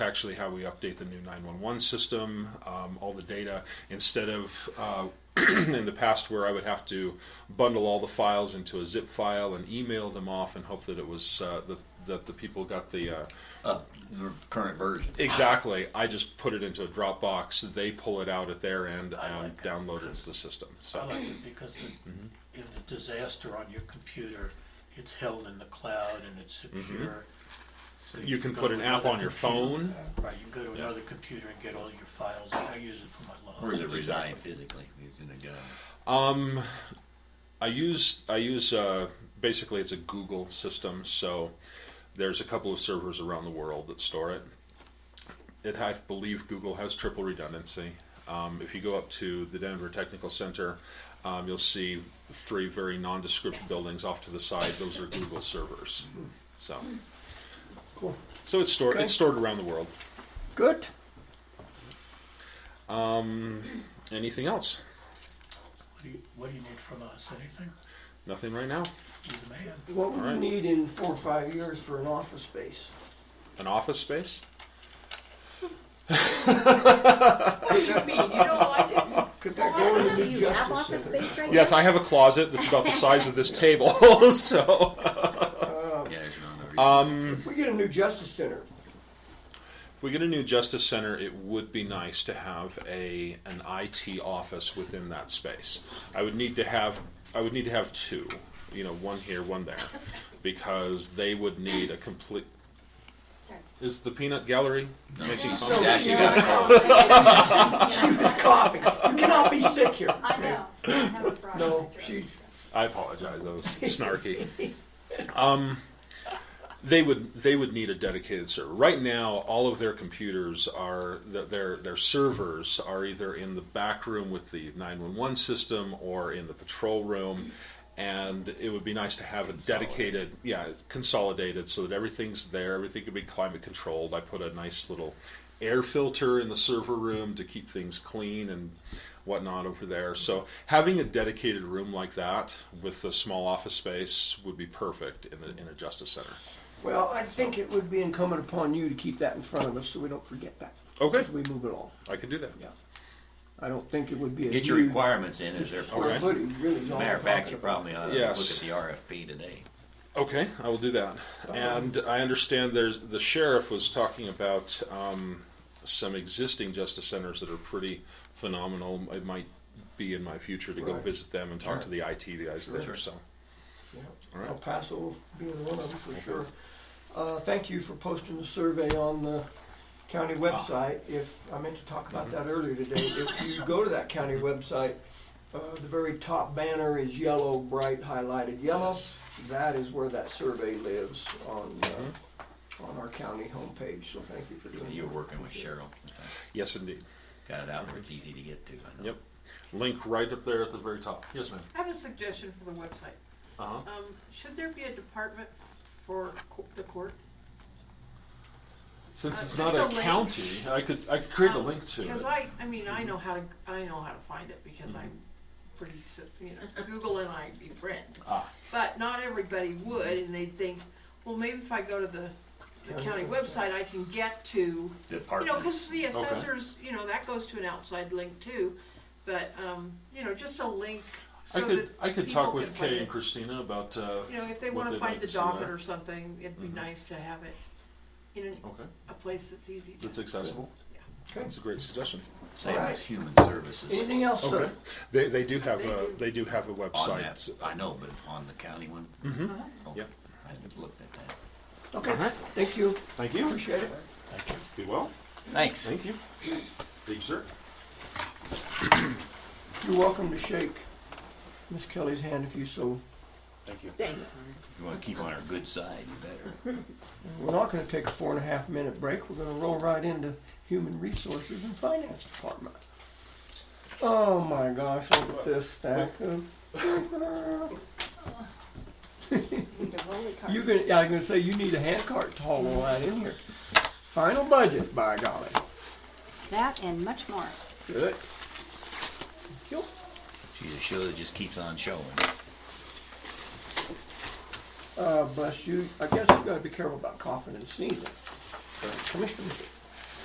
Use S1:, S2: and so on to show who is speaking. S1: actually how we update the new 911 system, um, all the data, instead of uh, in the past where I would have to bundle all the files into a zip file and email them off and hope that it was uh, that, that the people got the uh,
S2: Uh, the current version.
S1: exactly. I just put it into a Dropbox. They pull it out at their end and
S3: I like it.
S1: download it to the system. So
S3: I like it because
S1: Mm-hmm.
S3: it- in a disaster on your computer, it's held in the cloud and it's secure. So
S1: Mm-hmm. You can
S3: go
S1: put
S3: to
S1: an
S3: another
S1: app on your
S3: computer-
S1: phone.
S3: Right, you can go to another computer and get all your files. I use it for my law.
S2: Where does it
S1: Exactly.
S2: reside physically? He's in a gun.
S1: Um, I use I use uh, basically it's a Google system, so there's a couple of servers around the world that store it. It I believe Google has triple redundancy. Um, if you go up to the Denver Technical Center, um, you'll see three very nondescript buildings off to the side. Those are Google servers. So,
S4: Cool.
S1: so it's stored
S4: Okay.
S1: it's stored around the world.
S4: Good.
S1: Um, anything else?
S3: What do you, what do you need from us? Anything?
S1: Nothing right now.
S3: You're the man.
S4: What would
S1: All right.
S4: you need in four or five years for an office space?
S1: An office space.
S5: I mean, you know, I didn't.
S4: Could that go in the
S5: Well, Do
S4: new
S5: you have
S4: justice
S5: office
S4: center?
S5: space right now?
S1: Yes, I have a closet that's about the size of this table. so,
S4: Uh,
S2: Yeah, you don't know where you-
S1: um,
S4: We get a new justice center.
S1: if we get a new justice center. It would be nice to have a an IT office within that space. I would need to have I would need to have two, you know, one here, one there, because they would need a complete.
S5: Sorry.
S1: Is the peanut gallery
S2: No.
S1: making
S2: So-
S1: comments?
S2: Jack, you
S4: got a She was coughing. You cannot be sick here.
S5: I know. I have a frog in my
S4: No,
S5: throat.
S4: she,
S1: I apologize. That was snarky. Um, they would they would need a dedicated server. Right now, all of their computers are th- their their servers are either in the back room with the nine one one system or in the patrol room. And it would be nice to have a dedicated, yeah, consolidated, so that everything's there. Everything can be climate controlled. I put a nice little air filter in the server room to keep things clean and whatnot over there. So having a dedicated room like that with a small office space would be perfect in a, in a justice center.
S4: well, I think it would be incumbent upon you to keep that in front of us so we don't forget that
S1: Okay,
S4: as we move along.
S1: I could do that.
S4: I don't think it would be a
S2: Get your
S4: huge-
S2: requirements in as they're.
S4: square
S1: Okay.
S4: footage, really. is all
S2: Matter of
S4: I'm
S2: fact,
S4: talking
S2: you
S4: about.
S2: probably ought to
S1: Yes.
S2: look at the RFP today.
S1: Okay, I will do that. And I understand there's the sheriff was talking about um, some existing justice centers that are pretty phenomenal. It might be in my future to go
S4: Right.
S1: visit them and talk to
S2: Sure.
S1: the IT guys there.
S2: Sure.
S1: So,
S4: Yeah.
S1: all
S4: El
S1: right,
S4: Paso being one of them for sure. Uh, Thank you for posting the survey on the county
S1: Ah.
S4: website. If, I meant to talk
S1: Mm-hmm.
S4: about that earlier today, if you go to that county website, uh, the very top banner is yellow, bright highlighted yellow.
S1: Yes.
S4: That is where that survey lives on, uh,
S1: Mm-hmm.
S4: on our county homepage, so thank you for doing that.
S2: You're working with Cheryl.
S1: yes, indeed.
S2: Got it out where it's easy to get to. I know.
S1: Yep, link right up there at the very top. Yes, ma'am.
S6: I have a suggestion for the website.
S1: Uh huh.
S6: Um, should there be a department for co- the court?
S1: Since
S6: Uh,
S1: it's
S6: just
S1: not
S6: a
S1: a
S6: link.
S1: county, I could, I could create a
S6: Um,
S1: link to it. Mm-hmm.
S6: Because I, I mean, I know how to, I know how to find it because I'm pretty, s- you know, Google and I be friends.
S1: Ah.
S6: But not everybody would, and they'd think, well, maybe if I go to the, the county website, I can get to, you know, because
S2: Departments.
S6: the assessors, you know, that goes to an outside link too. But, um, you know, just a link
S1: I
S6: so
S1: could,
S6: that
S1: I could
S6: people
S1: talk
S6: can
S1: with
S6: find
S1: Kay and
S6: it.
S1: Christina about, uh,
S6: You know, if they
S1: what
S6: wanna
S1: they'd
S6: find
S1: like
S6: the
S1: to see there.
S6: docket or something, it'd be
S1: Mhm.
S6: nice to have it in an-
S1: okay,
S6: a place that's easy
S1: that's
S6: to.
S1: accessible.
S4: Okay.
S1: That's a great suggestion.
S2: Same
S4: Alright.
S2: as human services
S4: Anything else, sir?
S1: Okay. They, they do have
S6: They
S1: a,
S6: do.
S1: they do have a
S2: on that.
S1: website.
S2: I know, but on the county one.
S1: Mm-hmm,
S6: Uh-huh.
S2: Okay.
S1: Yep.
S2: I haven't looked at that.
S4: Okay,
S1: Alright.
S4: thank you,
S1: thank you.
S4: appreciate it.
S1: Be well,
S2: Thanks.
S1: thank you. Thank you, sir.
S4: You're welcome to shake Miss Kelly's hand if you so
S1: Thank you.
S5: Thanks.
S2: You want to keep on our good side, you better.
S4: We're not gonna take a four and a half minute break. We're gonna roll right into Human Resources and Finance Department. Oh my gosh, look at this stack of.
S5: Need a rolly cart.
S4: You're gonna, yeah, I was gonna say, you need a hand cart to haul all that in here. Final budget, by golly.
S5: That and much more.
S4: Good. Thank you.
S2: She's a show that just keeps on showing.
S4: Uh, bless you. I guess you gotta be careful about coughing and sneezing. Commissioner,